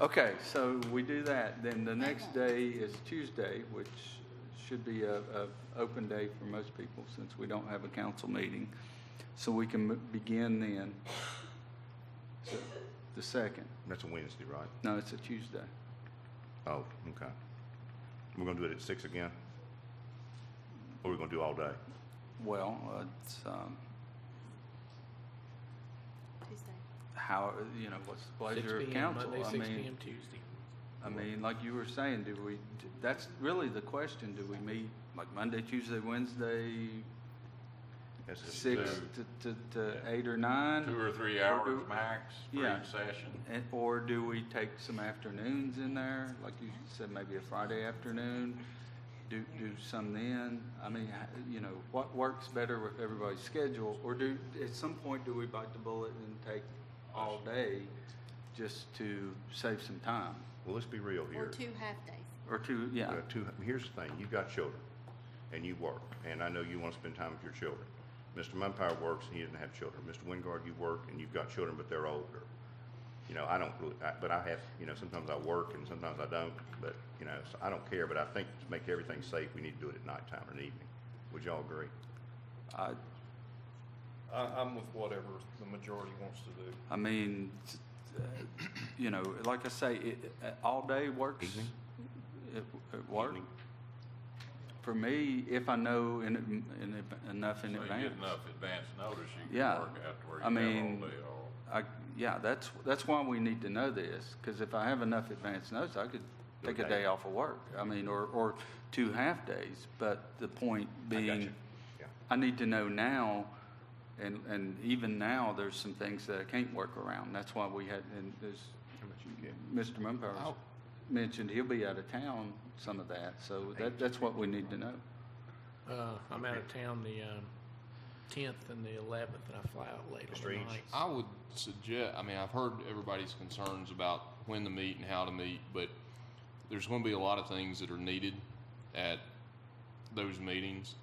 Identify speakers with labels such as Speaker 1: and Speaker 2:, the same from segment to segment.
Speaker 1: Okay, so we do that, then the next day is Tuesday, which should be a, a open day for most people since we don't have a council meeting. So we can m- begin then, So, the second.
Speaker 2: That's a Wednesday, right?
Speaker 1: No, it's a Tuesday.
Speaker 2: Oh, okay. We're gonna do it at six again? Or we're gonna do all day?
Speaker 1: Well, uh, it's, um,
Speaker 3: Tuesday.
Speaker 1: how, you know, what's the pleasure of council? I
Speaker 4: Monday, six
Speaker 1: mean,
Speaker 4: PM Tuesday.
Speaker 1: I mean, like you were saying, do we, that's really the question, do we meet like Monday, Tuesday, Wednesday,
Speaker 2: That's just-
Speaker 1: six to, to, to eight or nine?
Speaker 5: Two or three
Speaker 1: Or
Speaker 5: hours
Speaker 1: do-
Speaker 5: max for
Speaker 1: Yeah.
Speaker 5: each session.
Speaker 1: And, or do we take some afternoons in there, like you said, maybe a Friday afternoon? Do, do some then? I mean, ha- you know, what works better with everybody's schedule? Or do, at some point, do we bite the bullet and take all day just to save some time?
Speaker 2: Well, let's be real
Speaker 3: Or
Speaker 2: here.
Speaker 3: two half-days.
Speaker 1: Or two, yeah,
Speaker 2: Uh, two- here's the thing, you've got children, and you work, and I know you wanna spend time with your children. Mr. Mumpire works, and he doesn't have children. Mr. Wingard, you work, and you've got children, but they're older. You know, I don't really, I- but I have, you know, sometimes I work and sometimes I don't, but, you know, so I don't care, but I think to make everything safe, we need to do it at nighttime or in the evening. Would y'all agree?
Speaker 1: I,
Speaker 6: I, I'm with whatever the majority wants to do.
Speaker 1: I mean, t- uh, you know, like I say, it, uh, all day works.
Speaker 2: Evening?
Speaker 1: It, it works.
Speaker 2: Evening?
Speaker 1: For me, if I know in, in, in- enough
Speaker 5: So
Speaker 1: in
Speaker 5: you
Speaker 1: advance.
Speaker 5: get enough advance notice, you
Speaker 1: Yeah.
Speaker 5: can work out to where
Speaker 1: I
Speaker 5: you
Speaker 1: mean,
Speaker 5: have all day off.
Speaker 1: I, yeah, that's, that's why we need to know this, because if I have enough advance notice, I could
Speaker 2: Do a
Speaker 1: take a
Speaker 2: day.
Speaker 1: day off of work. I mean, or, or two half-days, but the point being,
Speaker 2: you. Yeah.
Speaker 1: I need to know now, and, and even now, there's some things that I can't work around. That's why we had, and there's, Mr. Mumpower mentioned he'll be out of town, some of that, so that, that's what we need to know.
Speaker 4: Uh, I'm out of town the, um, tenth and the eleventh, and I fly out late on
Speaker 2: Mr.
Speaker 4: the
Speaker 2: Eads?
Speaker 4: night.
Speaker 7: I would suggest, I mean, I've heard everybody's concerns about when to meet and how to meet, but there's going to be a lot of things that are needed at those meetings.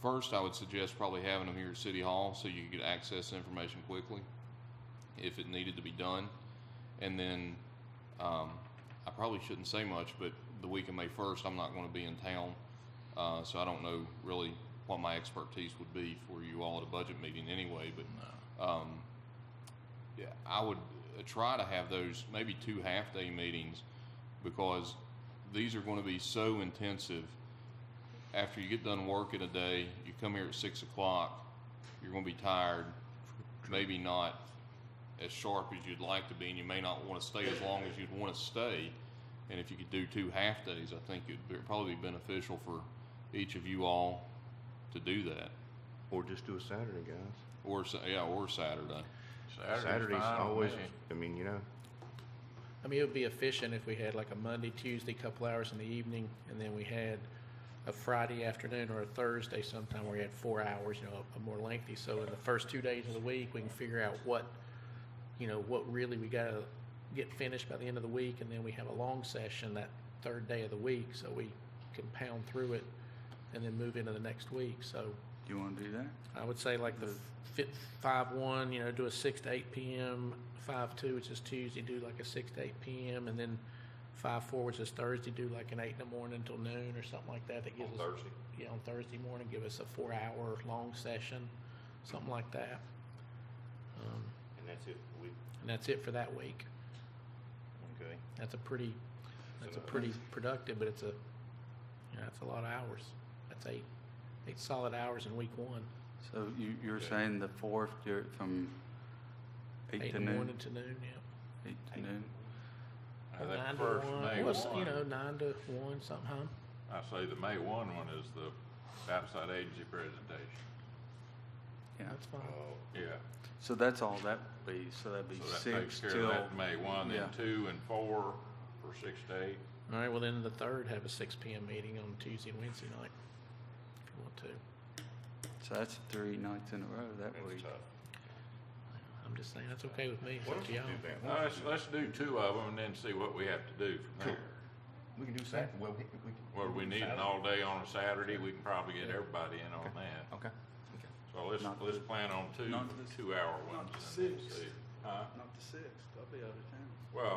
Speaker 7: First, I would suggest probably having them here at City Hall so you could access the information quickly if it needed to be done. And then, um, I probably shouldn't say much, but the week of May first, I'm not going to be in town. Uh, so I don't know really what my expertise would be for you all at a budget meeting anyway, but, um, yeah, I would uh, try to have those maybe two half-day meetings because these are going to be so intensive. After you get done working a day, you come here at six o'clock, you're going to be tired, maybe not as sharp as you'd like to be, and you may not want to stay as long as you'd want to stay. And if you could do two half days, I think it'd be- probably be beneficial for each of you all to do that,
Speaker 2: Or just do a Saturday, guys.
Speaker 7: or Sa- yeah, or Saturday.
Speaker 5: Saturday's
Speaker 2: Saturday's
Speaker 5: fine with
Speaker 2: always,
Speaker 5: me.
Speaker 2: I mean, you know,
Speaker 4: I mean, it would be efficient if we had like a Monday, Tuesday, couple hours in the evening, and then we had a Friday afternoon or a Thursday sometime where we had four hours, you know, a more lengthy. So in the first two days of the week, we can figure out what, you know, what really we gotta get finished by the end of the week, and then we have a long session that third day of the week, so we can pound through it and then move into the next week. So
Speaker 1: You want to do that?
Speaker 4: I would say like the fit five one, you know, do a six to eight p.m. Five two, which is Tuesday, do like a six to eight p.m. and then five four, which is Thursday, do like an eight in the morning until noon or something like that. That gives us
Speaker 6: Thursday.
Speaker 4: yeah on Thursday morning, give us a four hour long session, something like that. Um,
Speaker 2: and that's it, we,
Speaker 4: and that's it for that week.
Speaker 2: okay.
Speaker 4: That's a pretty that's a
Speaker 2: So-
Speaker 4: pretty productive, but it's a you know, that's a lot of hours. That's eight eight solid hours in week one,
Speaker 1: So you, you're saying the fourth, you're from eight
Speaker 4: eight
Speaker 1: to
Speaker 4: in the
Speaker 1: noon?
Speaker 4: morning to noon. Yeah.
Speaker 1: Eight to noon?
Speaker 5: I
Speaker 4: Or
Speaker 5: think
Speaker 4: nine to
Speaker 5: first
Speaker 4: one.
Speaker 5: May
Speaker 4: Well, it's, you
Speaker 5: one,
Speaker 4: know, nine to one, something. huh?
Speaker 5: I say the May one one is the outside agency presentation.
Speaker 1: Yeah.
Speaker 4: That's fine.
Speaker 2: uh,
Speaker 5: Yeah.
Speaker 1: So that's all that would be, so that'd be
Speaker 5: So that takes
Speaker 1: six
Speaker 5: care of
Speaker 1: till,
Speaker 5: that May one, then
Speaker 1: yeah.
Speaker 5: two and four for six to eight.
Speaker 4: All right, well, then the third, have a six PM meeting on Tuesday and Wednesday night, if you want to.
Speaker 1: so that's three nights in a row that week.
Speaker 4: I'm just saying, that's okay with me, it's up to y'all.
Speaker 5: Well, Let's, let's do two of them and then see what we have to do from there.
Speaker 2: We can do Saturday, well, we, we. can-
Speaker 5: Well, we need an all day on a Saturday, we can probably get everybody in on that.
Speaker 2: Okay.
Speaker 5: So let's,
Speaker 1: Not
Speaker 5: let's plan on two,
Speaker 1: not the-
Speaker 5: two hour ones.
Speaker 1: not the
Speaker 5: and then
Speaker 1: sixth.
Speaker 5: see. Huh?
Speaker 1: Not the sixth, I'll be out of town.
Speaker 5: Well,